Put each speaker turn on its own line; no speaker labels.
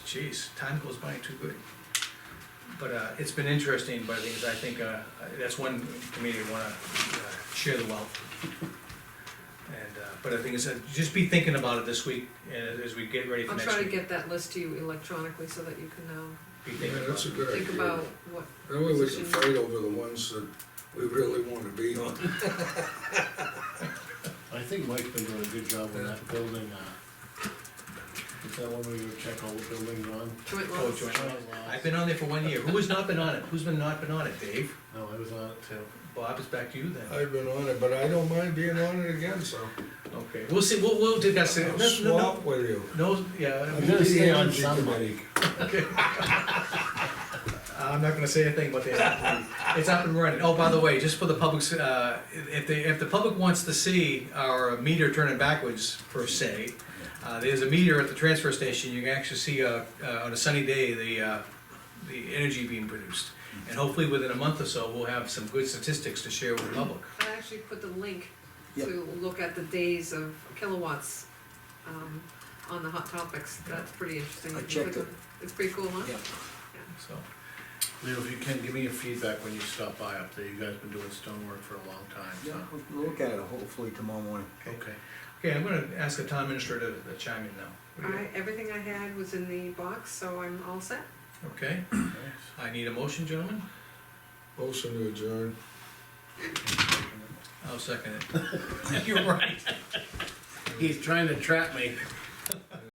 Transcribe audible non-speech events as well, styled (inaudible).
geez, time goes by too good. But, uh, it's been interesting, but the thing is, I think, uh, that's one committee I wanna, uh, share the wealth. And, uh, but the thing is, uh, just be thinking about it this week, and as we get ready for
I'll
next
try to
week.
get that list to you electronically so that you can now
Be
Yeah,
thinking about
that's a
it.
good idea.
think about what,
That way we can fight over the ones that we really wanna be
(laughs)
on.
I think Mike's been doing a good job on that building, uh, is that one where you check all the buildings on?
joint
Oh,
loss.
joint I've been on there for one year, who has not been on it, who's been not been on it, Dave?
No, I was uh, on it too.
Bob, it's back to you then.
I've been on it, but I don't mind being on it again, so
Okay, we'll see, we'll, we'll discuss it. No,
I'm
no, no.
swamped with you.
No, yeah,
I'm gonna stay
Yeah,
on
I'm
somebody.
okay. (laughs) I'm not gonna say a thing about that. It's up and running. Oh, by the way, just for the public's, uh, if they, if the public wants to see our meter turning backwards per se, uh, there's a meter at the transfer station. You can actually see, uh, uh, on a sunny day, the, uh, the energy being produced. And hopefully within a month or so, we'll have some good statistics to share with the public.
I actually put the link to look at the days of kilowatts, um, on the hot topics, that's pretty interesting.
I
You can
checked
click on- It's pretty cool, huh?
Yeah.
So,
Leo, if you can, give me your feedback when you stop by up there, you guys been doing stonework for a long time,
Yeah,
so,
we'll look at it hopefully tomorrow morning.
okay.
okay, I'm gonna ask the town administrator to chime in now. What do you-
Alright, everything I had was in the box, so I'm all set.
Okay,
nice.
I need a motion, gentlemen.
Motion to adjourn.
I'll second it. (laughs) You're right.
He's trying to trap me.